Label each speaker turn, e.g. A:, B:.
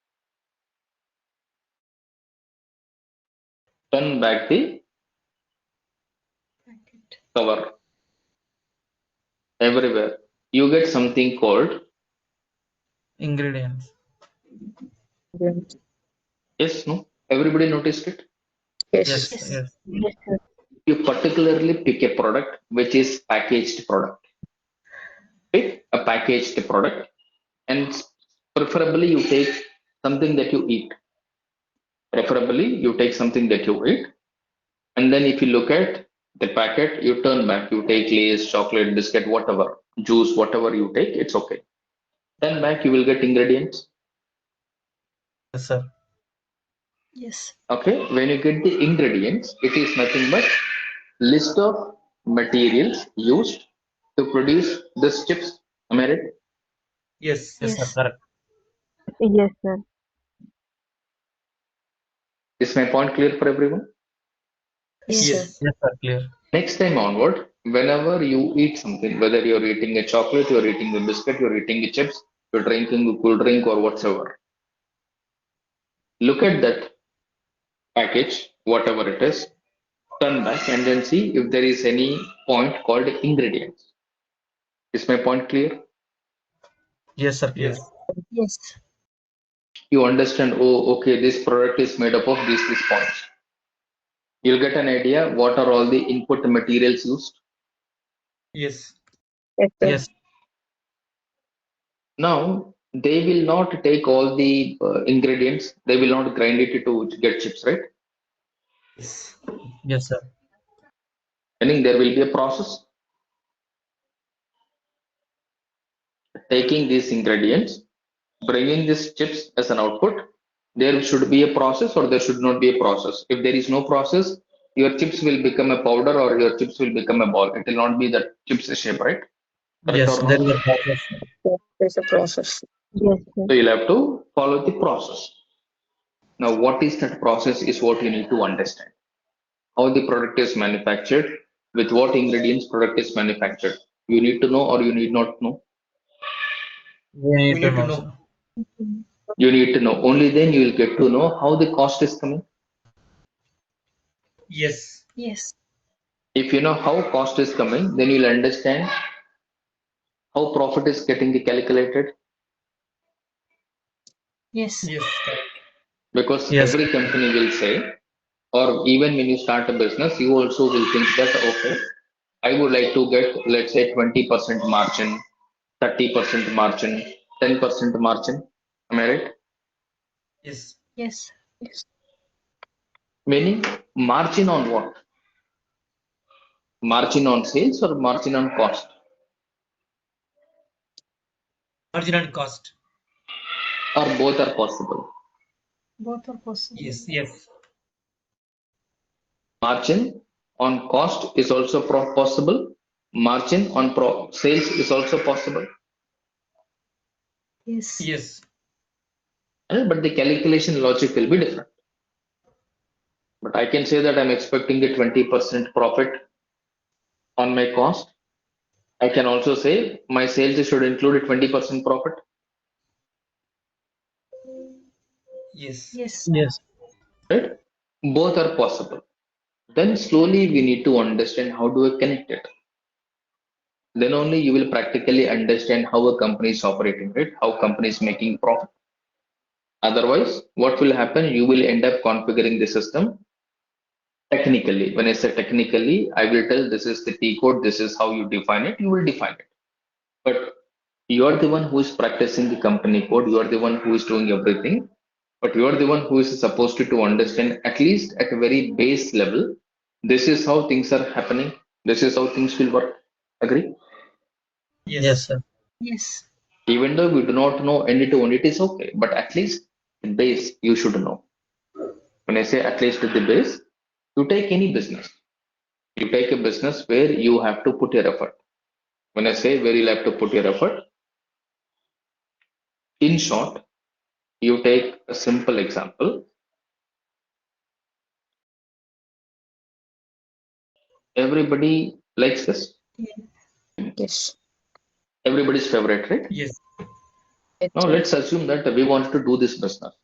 A: turn back the
B: Packet.
A: cover everywhere. You get something called
C: ingredients
A: yes, no. Everybody noticed it.
C: yes yes,
A: you particularly pick a product which is packaged product pick a packaged product and preferably you take something that you eat preferably you take something that you eat and then if you look at the packet you turn back you take lays chocolate biscuit whatever juice whatever you take it's okay then back you will get ingredients
C: yes sir
B: Yes.
A: okay when you get the ingredients it is nothing but list of materials used to produce this chips am i right
C: yes yes sir
B: Yes.
C: correct
D: Yes, sir.
A: is my point clear for everyone
B: Yes.
C: yes yes sir clear
A: next time onward whenever you eat something whether you're eating a chocolate you're eating a biscuit you're eating a chips you're drinking a cool drink or whatsoever look at that package whatever it is turn back and then see if there is any point called ingredients is my point clear
C: yes sir clear
B: Yes.
A: you understand oh okay this product is made up of these these points you'll get an idea what are all the input materials used
C: yes
D: Yes, sir.
C: yes
A: now they will not take all the uh, ingredients they will not grind it to get chips right
C: yes yes sir
A: meaning there will be a process taking these ingredients bringing these chips as an output there should be a process or there should not be a process if there is no process your chips will become a powder or your chips will become a ball it will not be the chips shape right Correct
C: yes
A: or not?
C: there is a process sir.
D: There's a process. Yes, sir.
A: so you'll have to follow the process now what is that process is what you need to understand how the product is manufactured with what ingredients product is manufactured you need to know or you need not know
C: we need to know sir.
A: you need to know only then you will get to know how the cost is coming
C: yes
B: Yes.
A: if you know how cost is coming then you'll understand how profit is getting calculated
B: Yes.
C: yes correct
A: because
C: Yes.
A: every company will say or even when you start a business you also will think that okay i would like to get let's say 20% margin 30% margin 10% margin am i right
C: yes
B: Yes.
A: meaning margin on what margin on sales or margin on cost
C: margin and cost
A: or both are possible
B: Both are possible.
C: yes yes
A: margin on cost is also pro- possible margin on pro- sales is also possible
B: Yes.
C: yes
A: eh, but the calculation logic will be different but i can say that i'm expecting a 20% profit on my cost i can also say my sales should include a 20% profit
C: yes
B: Yes.
C: yes
A: right both are possible then slowly we need to understand how do we connect it then only you will practically understand how a company is operating right how company is making profit otherwise what will happen you will end up configuring the system technically when i say technically i will tell this is the t code this is how you define it you will define it but you are the one who is practicing the company code you are the one who is doing everything but you are the one who is supposed to, to understand at least at a very base level this is how things are happening this is how things will work agree
C: yes, sir
B: Yes.
A: even though we do not know end to end it is okay but at least the base you should know when i say at least the base you take any business you take a business where you have to put your effort when i say where you'll have to put your effort in short you take a simple example everybody likes this
D: Yes.
A: everybody's favorite right
C: yes
A: Now let's assume that we want to do this business.